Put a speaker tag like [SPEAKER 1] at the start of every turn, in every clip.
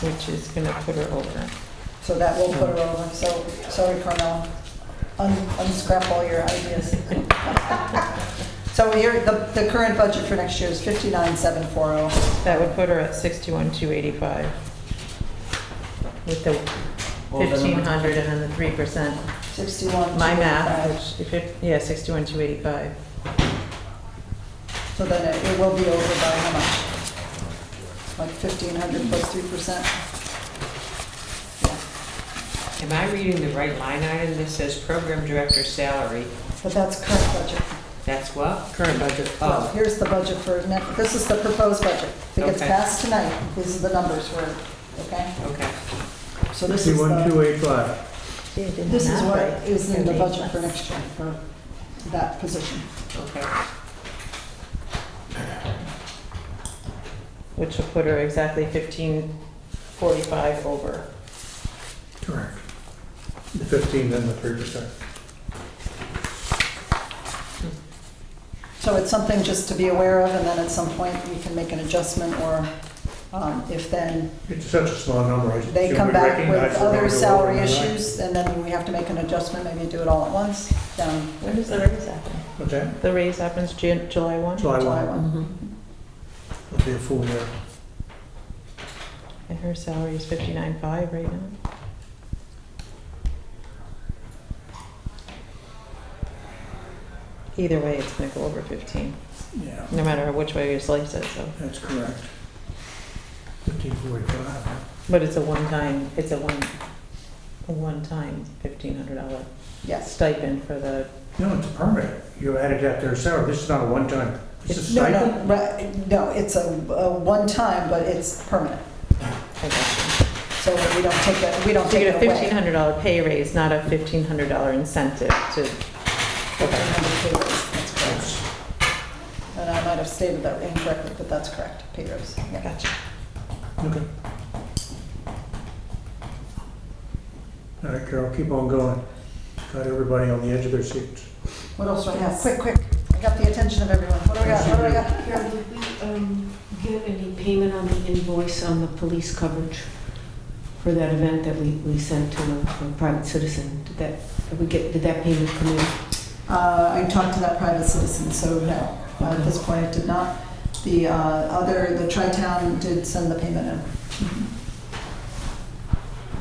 [SPEAKER 1] which is gonna put her over.
[SPEAKER 2] So that will put her over, so, sorry, Carmel, Un- unscrap all your ideas. So here, the, the current budget for next year is 59,740.
[SPEAKER 1] That would put her at sixty-one, two eighty-five. With the
[SPEAKER 3] What was that
[SPEAKER 1] fifteen
[SPEAKER 3] number?
[SPEAKER 1] hundred and then the three percent,
[SPEAKER 2] 61.
[SPEAKER 1] my math, which, if it, yeah, sixty-one, two eighty-five.
[SPEAKER 2] So then it it will be over by how much? Like 1,500 plus 3%? Yeah,
[SPEAKER 4] Am I reading the right line item that says program director salary?
[SPEAKER 2] But that's current budget.
[SPEAKER 4] That's what?
[SPEAKER 1] Current budget.
[SPEAKER 2] Well,
[SPEAKER 4] Oh,
[SPEAKER 2] here's the budget for, ne- this is the proposed budget. If it gets
[SPEAKER 4] Okay.
[SPEAKER 2] passed tonight, these are the numbers for, it, okay?
[SPEAKER 4] okay.
[SPEAKER 2] So this is
[SPEAKER 3] Fifty-one,
[SPEAKER 2] the,
[SPEAKER 3] two eight five.
[SPEAKER 2] this is what is in the budget for next year, for that position.
[SPEAKER 4] Okay.
[SPEAKER 1] Which will put her exactly fifteen, forty-five over.
[SPEAKER 3] Correct. The fifteen, then the three percent.
[SPEAKER 2] So it's something just to be aware of, and then at some point, we can make an adjustment, or um, if then
[SPEAKER 3] It's such a small number. I
[SPEAKER 2] they
[SPEAKER 3] should
[SPEAKER 2] come
[SPEAKER 3] we
[SPEAKER 2] back with
[SPEAKER 3] recognize the
[SPEAKER 2] other
[SPEAKER 3] number
[SPEAKER 2] salary
[SPEAKER 3] overnight?
[SPEAKER 2] issues, and then we have to make an adjustment, maybe do it all at once, down
[SPEAKER 1] When does the raise happen?
[SPEAKER 3] What's that?
[SPEAKER 1] The raise happens Jan, July one?
[SPEAKER 3] July
[SPEAKER 2] July
[SPEAKER 3] one,
[SPEAKER 2] 1.
[SPEAKER 3] it'll be a full year.
[SPEAKER 1] And her salary is fifty-nine, five right now. Either way, it's gonna go over fifteen,
[SPEAKER 3] Yeah,
[SPEAKER 1] no matter which way you slice it, so.
[SPEAKER 3] that's correct. Fifteen forty-five.
[SPEAKER 1] But it's a one-time, it's a one, a one-time fifteen hundred dollar
[SPEAKER 2] Yes.
[SPEAKER 1] stipend for the,
[SPEAKER 3] No, it's permanent. You added that to their salary. This is not a one-time. It's a
[SPEAKER 2] No,
[SPEAKER 3] stipend.
[SPEAKER 2] no, right, no, it's a a one-time, but it's permanent,
[SPEAKER 1] I guess.
[SPEAKER 2] so we don't take that, we don't
[SPEAKER 1] So you
[SPEAKER 2] take
[SPEAKER 1] get a
[SPEAKER 2] it away.
[SPEAKER 1] fifteen hundred dollar pay raise, not a fifteen hundred dollar incentive to, okay,
[SPEAKER 2] 1,500 pay raise, that's correct.
[SPEAKER 3] Yes.
[SPEAKER 2] And I might have stated that incorrectly, but that's correct, pay raise. yeah.
[SPEAKER 1] gotcha.
[SPEAKER 3] Okay. All right, Carol, keep on going. Got everybody on the edge of their seats.
[SPEAKER 2] What else do I have?
[SPEAKER 1] Yes.
[SPEAKER 2] Quick, quick, I got the attention of everyone, what do I got, what do I got here?
[SPEAKER 5] Carol, did we um, get any payment on the invoice on the police coverage for that event that we we sent to a a private citizen? Did that, did we get, did that payment come in?
[SPEAKER 2] Uh, I talked to that private citizen, so no, at this point, it did not. The uh, other, the tri-town did send the payment in.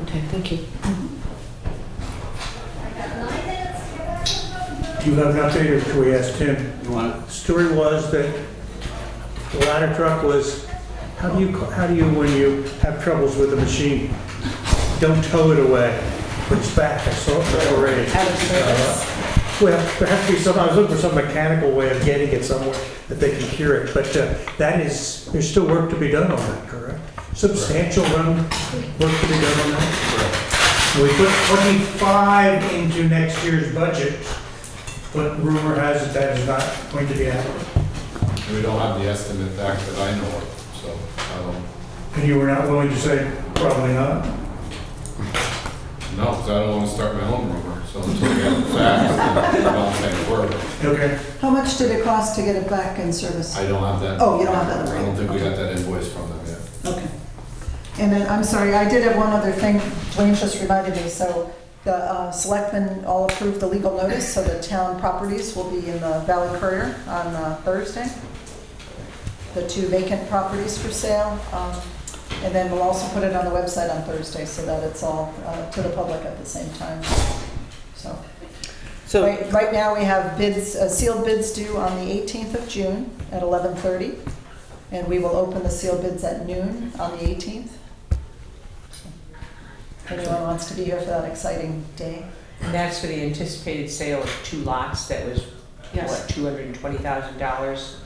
[SPEAKER 5] Okay, thank you.
[SPEAKER 3] Do you have an update, or can we ask Tim?
[SPEAKER 6] You want,
[SPEAKER 3] The Story was that the ladder truck was, how do you, how do you, when you have troubles with a machine, don't tow it away, put it back, I saw it already.
[SPEAKER 1] Out of service.
[SPEAKER 3] Uh, Well, there has to be some, I was looking for some mechanical way of getting it somewhere that they can hear it, but uh, that is, there's still work to be done on that, correct? Substantial run, work to be done on that? We put 25 into next year's budget, but rumor has it that is not going to be happening.
[SPEAKER 7] And we don't have the estimate back that I know of, so um, I don't,
[SPEAKER 3] And you were not willing to say, probably not?
[SPEAKER 7] no, 'cause I don't want to start my own rumor, so until we have the facts, I don't say a word.
[SPEAKER 3] Okay.
[SPEAKER 2] How much did it cost to get it back in service?
[SPEAKER 7] I don't have that.
[SPEAKER 2] Oh, you don't have that,
[SPEAKER 7] I
[SPEAKER 2] right.
[SPEAKER 7] don't think we got that invoice from them yet.
[SPEAKER 2] Okay. And then, I'm sorry, I did have one other thing, Wayne just reminded me, so the uh, selectmen all approved the legal notice, so the town properties will be in the Valley Courier on uh, Thursday. The two vacant properties for sale, um, and then we'll also put it on the website on Thursday, so that it's all uh, to the public at the same time. So,
[SPEAKER 1] So,
[SPEAKER 2] right right now, we have bids, uh, sealed bids due on the 18th of June at 11:30, and we will open the sealed bids at noon on the 18th. If anyone wants to be here for that exciting day.
[SPEAKER 4] And that's for the anticipated sale of two lots that was,
[SPEAKER 5] Yes.
[SPEAKER 4] what, two hundred and twenty thousand dollars?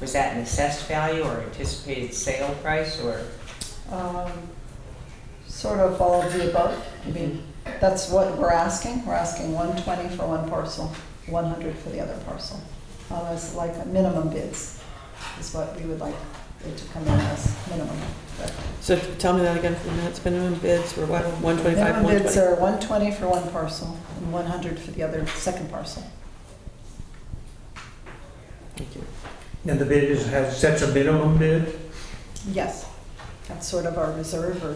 [SPEAKER 4] Was that an assessed value or anticipated sale price or?
[SPEAKER 2] Um, Sort of all of the above. I mean, that's what we're asking. We're asking 120 for one parcel, 100 for the other parcel. Uh, It's like a minimum bids is what we would like it to come in as, minimum. but-
[SPEAKER 8] So tell me that again for the minutes, minimum bids were what, 125,
[SPEAKER 2] Minimum bids
[SPEAKER 8] 120?
[SPEAKER 2] are 120 for one parcel and 100 for the other, second parcel.
[SPEAKER 8] Thank you.
[SPEAKER 3] And the bid is, has, sets a minimum bid?
[SPEAKER 2] Yes. That's sort of our reserve or